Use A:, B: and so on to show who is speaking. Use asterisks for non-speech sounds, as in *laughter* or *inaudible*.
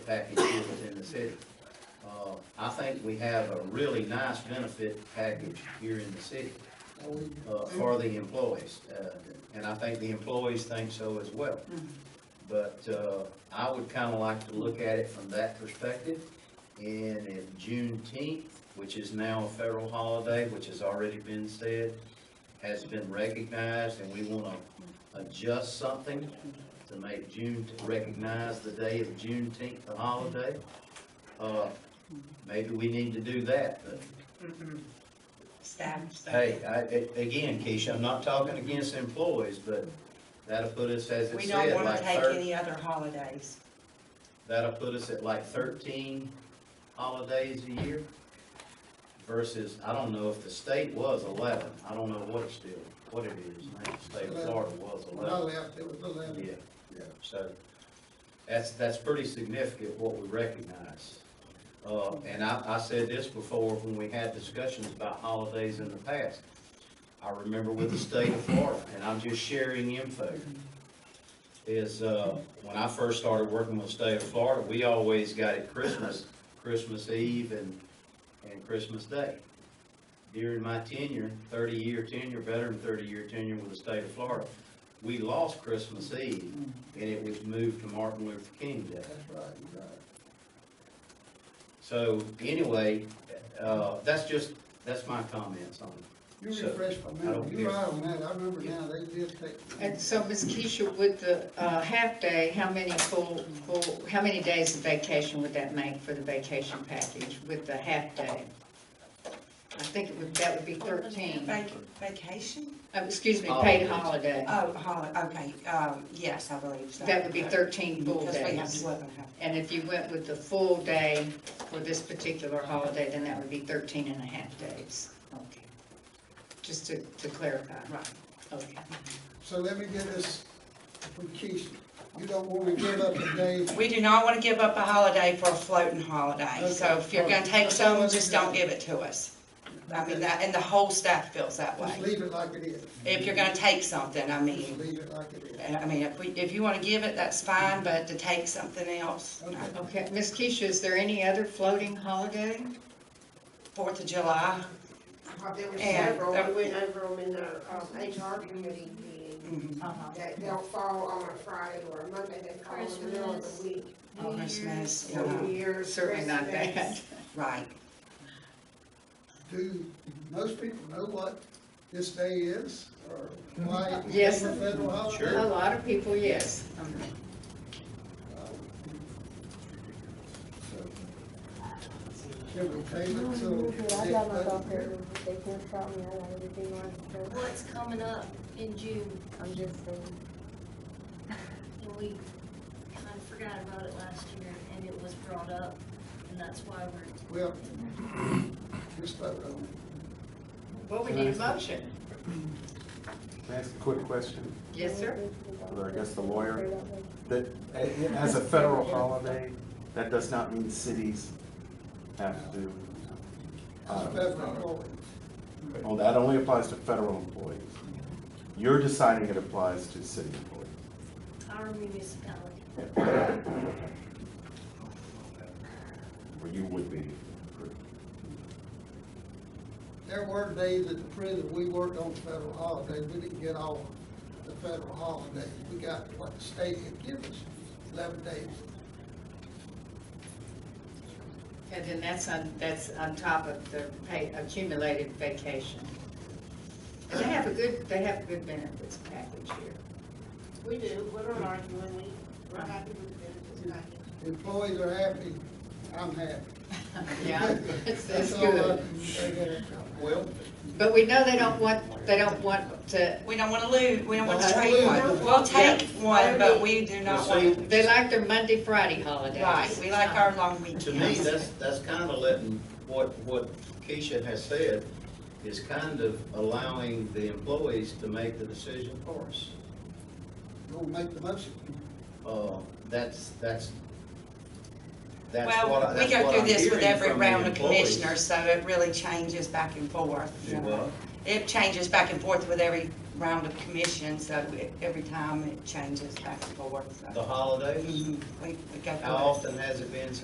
A: package here within the city. Uh, I think we have a really nice benefit package here in the city, uh, for the employees. Uh, and I think the employees think so as well. But, uh, I would kinda like to look at it from that perspective. And if Juneteenth, which is now a federal holiday, which has already been said, has been recognized, and we wanna adjust something to make June, to recognize the day of Juneteenth, the holiday, uh, maybe we need to do that, but
B: Mm-hmm. Staff. staff.
A: Hey, I, a- again, Keisha, I'm not talking against employees, but that'll put us, as it
B: We don't
A: said,
B: wanna
A: like
B: take
A: thir-
B: any other holidays.
A: that'll put us at like thirteen holidays a year versus, I don't know if the state was eleven, I don't know what it's still, what it is now, the state of Florida was
C: When I
A: eleven.
C: left, it was eleven.
A: Yeah,
C: Yeah.
A: so that's, that's pretty significant what we recognize. Uh, and I, I said this before when we had discussions about holidays in the past. I remember with the state of Florida, and I'm just sharing info, is, uh, when I first started working with the state of Florida, we always got it Christmas, Christmas Eve and, and Christmas Day. During my tenure, thirty-year tenure, better than thirty-year tenure with the state of Florida, we lost Christmas Eve, and it was moved to Martin Luther King Day.
C: That's right, you're right.
A: So anyway, uh, that's just, that's my comments on it.
C: You
A: So,
C: refresh my
A: I don't
C: memory, you're
A: care.
C: right on that, I remember now, they did take.
D: And so, Ms. Keisha, with the uh, half-day, how many full, full, how many days of vacation would that make for the vacation package with the half-day? I think it would, that would be 13. Uh,
B: Vac- Vacation?
D: Excuse me, paid
A: Holidays.
D: holiday.
B: Oh, holiday, okay, um, yes, I believe so.
D: That would be 13 full
B: Because we have
D: days.
B: eleven, huh?
D: And if you went with the full day for this particular holiday, then that would be 13 and a half days. Okay. Just to, to clarify.
B: Right.
D: Okay.
C: So let me get this from Keisha, you don't wanna give up a day,
B: We do not want to give up a holiday for a floating holiday, so
C: Okay.
B: if you're gonna take some, just don't give it to us. I mean, that, and the whole staff feels that
C: just
B: way.
C: leave it like it is.
B: If you're gonna take something, I
C: Just
B: mean,
C: leave it like it is.
B: and I mean, if we, if you want to give it, that's fine, but to take something else, no.
C: Okay.
D: Okay, Ms. Keisha, is there any other floating holiday?
B: Fourth of July,
E: There were
B: And-
E: several, we went over them in the, um, HR committee meeting,
B: mhm,
E: that they'll fall on a Friday or a Monday, they fall in the middle of the week.
B: Oh, Christmas,
E: New
B: yeah,
E: Year's,
D: Certainly not
E: Christmas.
D: that.
B: right.
C: Do most people know what this day is, or why it became
D: Yes.
C: a federal holiday?
A: Sure.
D: A lot of people, yes.
C: Can we table it till
F: Usually, I got my
C: next
F: doctor,
C: budget?
F: they can't stop me, I got everything on, so
G: What's coming up in June,
F: I'm just saying.
G: and we kind of forgot about it last year, and it was brought up, and that's why we're,
C: Well, just vote on it.
D: Well, we need a motion.
H: Can I ask a quick question?
D: Yes, sir.
H: Or I guess the lawyer. That, a- as a federal holiday, that does not mean cities have to,
C: It's
H: uh,
C: federal holiday.
H: well, that only applies to federal employees. You're deciding it applies to city employees.
G: our municipality.
H: Or you would be.
C: There were days at the prison, we worked on federal holidays, we didn't get all the federal holidays, we got what the state had given us, eleven days.
D: And then that's on, that's on top of the pay, accumulated vacation. And they have a good, they have a good benefits package here.
E: We do, we're not arguing, we, we're happy with the benefits package.
C: Employees are happy, I'm happy. *laughs*
D: Yeah, that's, that's
C: all I
D: good.
C: can say there.
A: Well,
D: But we know they don't want, they don't want to,
B: We don't want to lose, we don't want to
D: Don't
B: take
C: lose.
B: one. We'll take one, but we do not
A: see,
B: want,
D: they like their Monday, Friday holidays.
B: right, we like our long weekends.
A: to me, that's, that's kind of letting, what, what Keisha has said is kind of allowing the employees to make the decision for us.
C: You wanna make the motion?
A: Uh, that's, that's, that's what, I-
B: Well, we
A: that's
B: go
A: what
B: through
A: I'm
B: this with
A: hearing
B: every
A: from the
B: round of
A: employees.
B: commissioners, so it really changes back and forth.
A: Do what?
B: It changes back and forth with every round of commission, so it- every time it changes back and forth, so.
A: the holidays?
B: Mhm, We, we go. through
A: How
B: it.
A: often has it been since